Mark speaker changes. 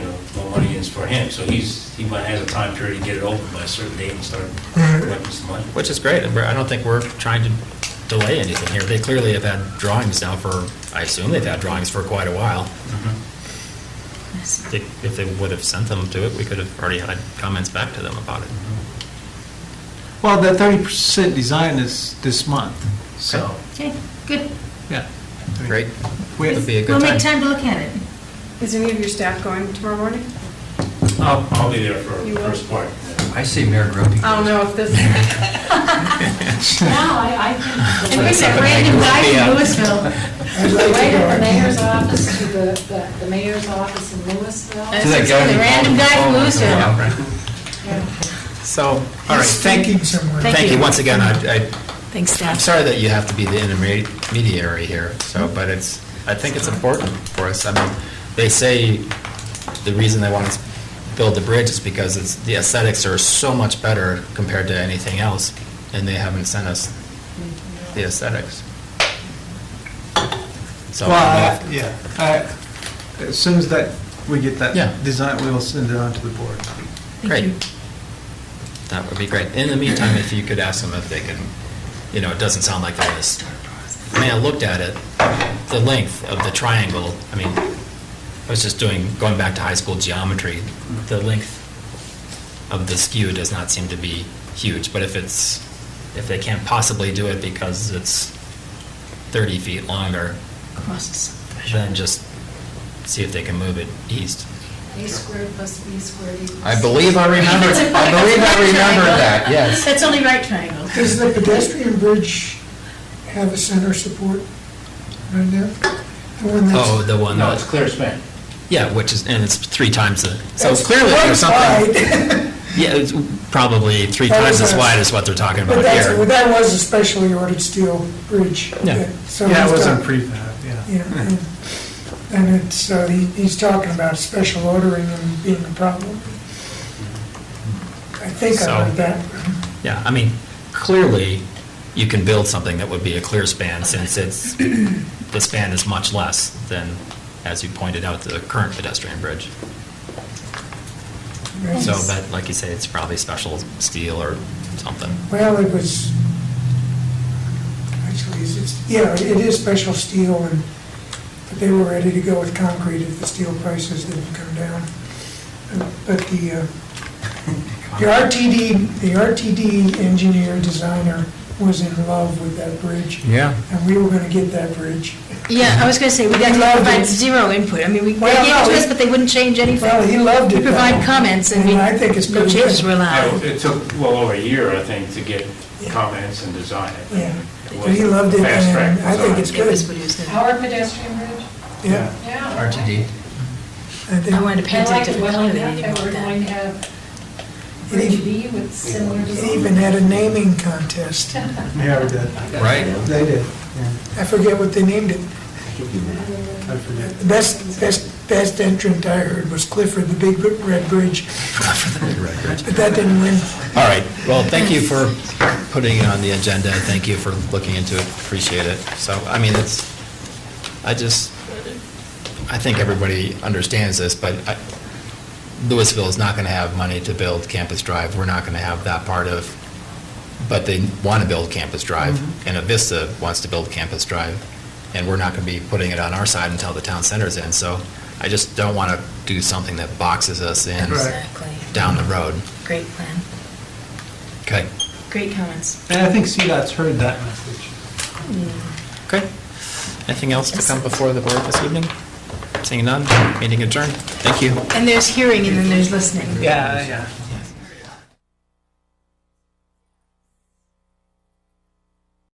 Speaker 1: for him, so he's, he might has a time period to get it open by a certain date and start collecting some money.
Speaker 2: Which is great, and we're- I don't think we're trying to delay anything here. They clearly have had drawings now for, I assume they've had drawings for quite a while. They- If they would have sent them to it, we could have already had comments back to them about it.
Speaker 3: Well, the thirty percent design is this month, so,
Speaker 4: Okay, good.
Speaker 3: yeah. I mean,
Speaker 2: Great.
Speaker 3: We,
Speaker 2: It'd be a
Speaker 4: We'll
Speaker 2: good
Speaker 4: make
Speaker 2: time.
Speaker 4: time to look at it.
Speaker 5: Is any of your staff going tomorrow morning?
Speaker 1: I'll, I'll be there for
Speaker 5: You will?
Speaker 1: first part.
Speaker 6: I see Mayor Grumpy.
Speaker 5: I don't know if this,
Speaker 7: No, I, I think.
Speaker 4: It was a random guy from Louisville. uh,
Speaker 7: The way to the mayor's office, to the, the- the mayor's office in Louisville.
Speaker 4: To that guy who random guy from Louisville.
Speaker 2: So, all right, thank you. Thank you, once again, I, I-
Speaker 4: Thanks,
Speaker 2: I'm
Speaker 4: staff.
Speaker 2: sorry that you have to be the intermediary here, so, but it's, I think it's important for us. I mean, they say the reason they want to build the bridge is because it's, the aesthetics are so much better compared to anything else, and they haven't sent us the aesthetics. So,
Speaker 3: Well, I- yeah, I- as soon as that, we get
Speaker 2: Yeah.
Speaker 3: that design, we will send it on to the board.
Speaker 4: Thank you.
Speaker 2: great. That would be great. In the meantime, if you could ask them if they can, you know, it doesn't sound like they're this. I mean, I looked at it, the length of the triangle, I mean, I was just doing, going back to high school geometry, the length of the skew does not seem to be huge, but if it's, if they can't possibly do it because it's 30 feet longer,
Speaker 4: Costs.
Speaker 2: then just see if they can move it east.
Speaker 7: A squared plus B squared equals.
Speaker 2: I believe I remember, I believe I remember that, yes.
Speaker 4: That's only right triangle.
Speaker 8: Does the pedestrian bridge have a center support right now? The one that's-
Speaker 2: Oh, the one
Speaker 1: No, it's
Speaker 2: that,
Speaker 1: clear span.
Speaker 2: yeah, which is, and it's three times the, so
Speaker 8: that's
Speaker 2: clearly there's
Speaker 8: one
Speaker 2: something,
Speaker 8: side,
Speaker 2: yeah, it's probably three
Speaker 8: That
Speaker 2: times as
Speaker 8: was a-
Speaker 2: wide as what they're talking
Speaker 8: But
Speaker 2: about
Speaker 8: that's,
Speaker 2: here.
Speaker 8: that was a specially ordered steel bridge.
Speaker 2: Yeah.
Speaker 8: that
Speaker 3: Yeah, it
Speaker 8: someone's
Speaker 3: wasn't
Speaker 8: done.
Speaker 3: prefab, yeah.
Speaker 8: Yeah,
Speaker 2: Hmm.
Speaker 8: and- and it's, so he, he's talking about special ordering and being a problem. I think
Speaker 2: So-
Speaker 8: I heard that.
Speaker 2: Yeah, I mean, clearly, you can build something that would be a clear span since it's, the span is much less than, as you pointed out, the current pedestrian bridge.
Speaker 8: right?
Speaker 2: So, but like you say, it's probably special steel or something.
Speaker 8: Well, it was, actually, it's- it's, yeah, it is special steel, and, but they were ready to go with concrete if the steel prices didn't come down. But the, uh, the RTD, the RTD engineer designer was in love with that bridge,
Speaker 2: Yeah.
Speaker 8: and we were gonna get that bridge.
Speaker 4: Yeah, I was going to say, we got to provide zero input. I mean, we, they
Speaker 8: Well,
Speaker 4: gave it to
Speaker 8: no,
Speaker 4: us,
Speaker 8: we-
Speaker 4: but they wouldn't change
Speaker 8: Well,
Speaker 4: anything.
Speaker 8: he loved it.
Speaker 4: We provide comments and we,
Speaker 8: I think it's
Speaker 4: no
Speaker 8: pretty
Speaker 4: changes were
Speaker 8: good.
Speaker 4: allowed.
Speaker 1: It took well over a year, I think, to get comments and design it.
Speaker 8: Yeah, but he loved it,
Speaker 1: Fast track
Speaker 8: and I think it's
Speaker 4: It was
Speaker 8: good,
Speaker 4: what he was doing.
Speaker 7: Our pedestrian bridge?
Speaker 8: yeah.
Speaker 7: Yeah.
Speaker 6: RTD.
Speaker 8: I think-
Speaker 4: I wanted to
Speaker 7: I
Speaker 4: paint it a
Speaker 7: like it
Speaker 4: different
Speaker 7: well
Speaker 4: color than
Speaker 7: enough
Speaker 4: you didn't
Speaker 7: that we're
Speaker 4: want
Speaker 7: going
Speaker 4: that.
Speaker 7: to have Bridge B with similar
Speaker 8: It
Speaker 7: design.
Speaker 8: even had a naming contest.
Speaker 3: Yeah, we did.
Speaker 2: Right?
Speaker 3: They did, yeah,
Speaker 8: I forget what they named it.
Speaker 3: I forget.
Speaker 8: The best, best, best entrant I heard was Clifford, the Big Red Bridge, but that didn't win.
Speaker 2: All right, well, thank you for putting it on the agenda, and thank you for looking into it, appreciate it. So, I mean, it's, I just, I think everybody understands this, but I- Louisville is not going to have money to build Campus Drive, we're not going to have that part of, but they want to build Campus Drive, and Avista wants to build Campus Drive, and we're not going to be putting it on our side until the town center's in, so I just don't want to do something that boxes us in
Speaker 3: Right.
Speaker 4: Exactly.
Speaker 2: down the road.
Speaker 4: Great plan.
Speaker 2: Okay.
Speaker 4: Great comments.
Speaker 3: And I think CDOT's heard that message.
Speaker 2: Okay. Anything else to come before the board this evening? Seeing none, meeting adjourned. Thank you.
Speaker 4: And there's hearing and then there's listening.
Speaker 3: Yeah, yeah.